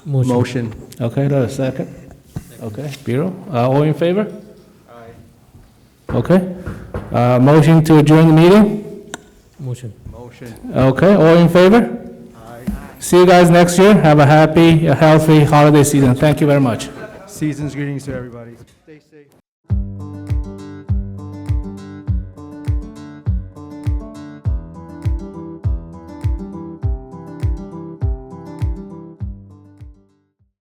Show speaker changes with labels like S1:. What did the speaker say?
S1: Motion.
S2: Okay, do I have a second? Okay, Bureau, uh, all in favor? Aye. Okay, uh, motion to adjourn the meeting?
S1: Motion.
S3: Motion.
S2: Okay, all in favor? Aye. See you guys next year, have a happy, a healthy holiday season, thank you very much.
S3: Season's greetings to everybody. Stay safe.